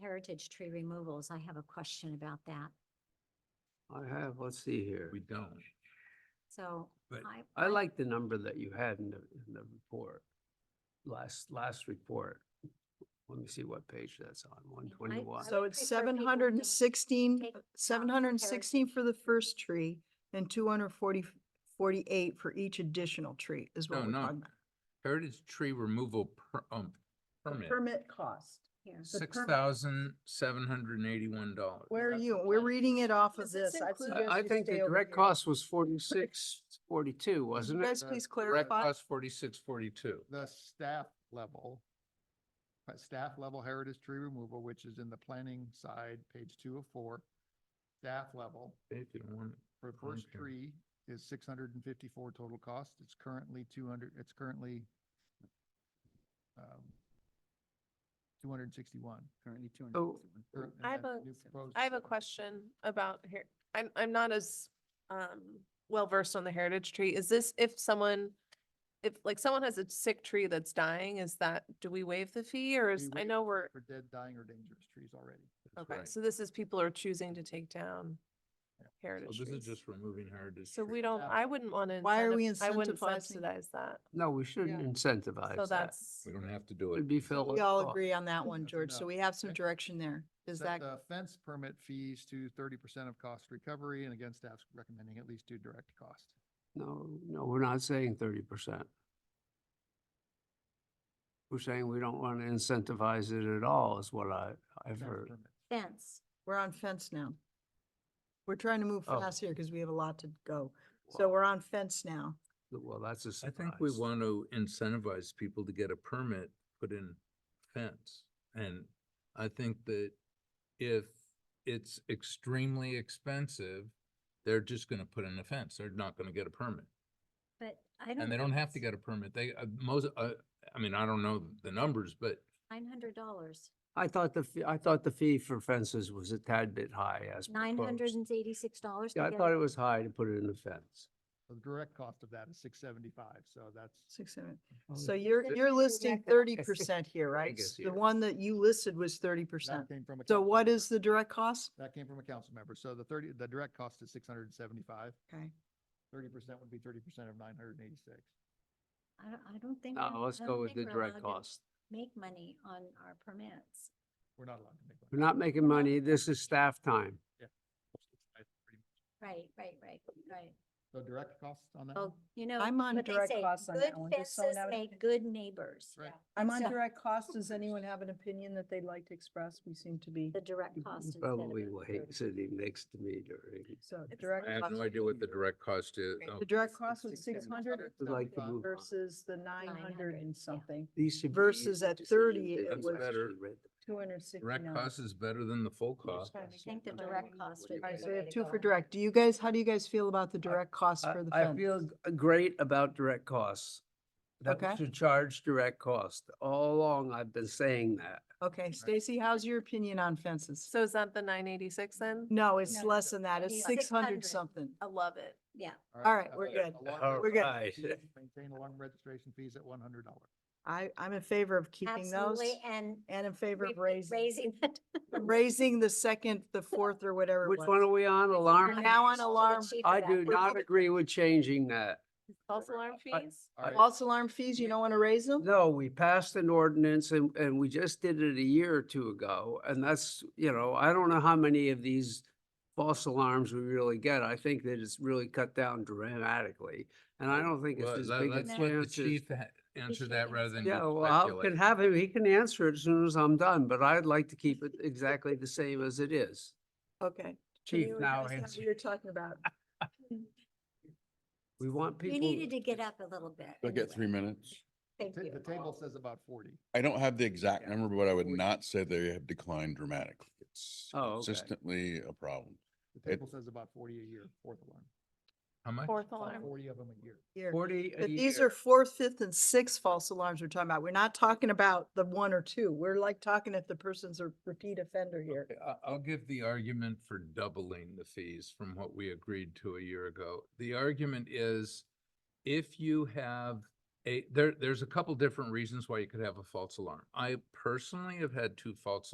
heritage tree removals, I have a question about that. I have, let's see here. We don't. So But I. I like the number that you had in the, in the report. Last, last report. Let me see what page that's on, one twenty-one. would So it's prefer people seven to hundred and sixteen, take out seven hundred and sixteen comparison. for the first tree and 240 48 for each additional tree is No, what we're no. talking about. Heritage tree removal per, um, permit, Permit cost. Here. the six permit. thousand seven hundred and eighty-one dollars. Where are That's you? the We're plan. reading it off of Does this this. I'd include- suggest I, I you think stay the over direct here. cost was forty-six, forty-two, wasn't it? Guys, please Direct clarify. cost forty-six, forty-two. the staff level, uh, staff level heritage tree removal, which is in the planning side, page two of four. Staff level If you want, for first Okay. tree is six hundred and fifty-four total cost. It's currently two hundred, it's currently um, two hundred and sixty-one. Currently two So- Oh, I have a- I have a question about here. I'm, I'm not as, um, well versed on the heritage tree. Is this if someone, if like someone has a sick tree that's dying, is that, do we waive the fee or is, We I waive know we're, For dead, dying, or dangerous trees already. that's okay, right. So so this is people are choosing to take down heritage this is trees. just removing heritage. So we tree. don't, Yeah. I wouldn't want to. Why are we I wouldn't incentivizing- subsidize that. No, we shouldn't Yeah. So incentivize that. that's, We don't have to do it. Would be Phil. We all agree on that one, That's George. So enough. we have some Okay. direction there. Is Set that, the fence permit fees to thirty percent of cost recovery, and again, staff's recommending at least two direct costs. No, no, we're not saying thirty percent. We're saying we don't want to incentivize it at all is what I, I've Fence heard. permit. Fence. we're on fence now. We're trying to move Oh. fast here because we have a lot to go. So Well- we're on fence now. Well, that's a I surprise. think we want to incentivize people to get a permit, put in fence. And I think that if it's extremely expensive, they're just gonna put in a fence. They're not gonna get a permit. But I don't. And they don't have to get a permit. They, uh, most, uh, I mean, I don't know the numbers, but Nine hundred dollars, I thought the, fee- I thought the fee for fences was a tad bit high as nine hundred proposed. and eighty-six dollars. Yeah, I thought it was high to put it in the fence. So The direct cost of that is six seventy-five, so that's. Six, seven. Oh, So you're, That's you're the listing exact thirty opposite. percent here, right? guess S- The here. one that you listed was thirty percent. that came from a So council what member. is the direct cost? That came from a council member. So the thirty, the direct cost is six hundred and seventy-five. Okay. Thirty percent would be thirty percent of nine hundred and eighty-six. I don't, I don't think. No, we're- Uh, let's I go don't with think the we're direct allowed to cost. Make money on our permits. We're not allowed to make. We're not making money. This is staff time. Right, right, right, right. So direct costs on that? Oh, Well, one? you know. I'm on what they direct say, costs on that one, Good just so fences now it- make good neighbors. Right. I'm on So- direct cost. Does anyone have an opinion that they'd like to express? We seem to be, The direct cost. instead of Probably the will thirty. hate sitting next to me during. so It's- direct. I have cost- no idea what the direct cost is. Oh, The direct cost was six 675. hundred I'd like to move on. versus the nine hundred 900, and yeah. something, These should be Versus easy at decisions 30, that it you was- actually read. two hundred and sixty-nine. Direct cost is better than the full cost. I think the direct cost would be. Alright, the so we way have to two go. for direct. Do you guys, how do you guys feel about the direct cost I- for the I fence? feel g- great about direct costs. That Okay. we should charge direct cost. All along, I've been saying that. Okay, Stacy, how's your opinion on fences? so is that the nine eighty-six then? No, it's No, less than that. It's it's six hundred 600. something. I love it. Yeah, All right, we're uh, good. alarm All registration right. fees, Maintain alarm registration fees at one hundred dollars. I, I'm in favor of keeping those absolutely, and. and in favor re- of raising, Raising that. raising the second, the fourth or whatever. it Which was. one are we on? We're Alarm? now on So the alarm. chief of I that. do not agree with changing that. False alarm I- fees? False alarm fees, you don't want to raise them? No, we passed an ordinance and, and we just did it a year or two ago. And that's, you know, I don't know how many of these false alarms we really get. I think that it's really cut down dramatically. And I don't think it's Well, as let- big a Let's let the chance as. chief ha- answer that rather than Yeah, you well, I can speculate. have him, he can answer it as soon as I'm done, but I'd like to keep it exactly the same as it is. Okay. Chief You now guys know answer. what You're talking about. We want people. You needed to get up a little bit. I get three anyway. minutes. Thank The you. table says about forty. I don't have the exact Yeah. number, but I would Forty. not say they have declined dramatically. It's Oh, okay. consistently a problem. The table says about forty a year, fourth alarm. How much? Fourth About alarm. Forty of them a year. Here. Forty a But these year. are fourth, fifth and sixth false alarms we're talking about. We're not talking about the one or two. We're like talking if the person's a repeat offender here. Okay, I- I'll give the argument for doubling the fees from what we agreed to a year ago. The argument is if you have a, there, there's a couple different reasons why you could have a false alarm. I personally have had two false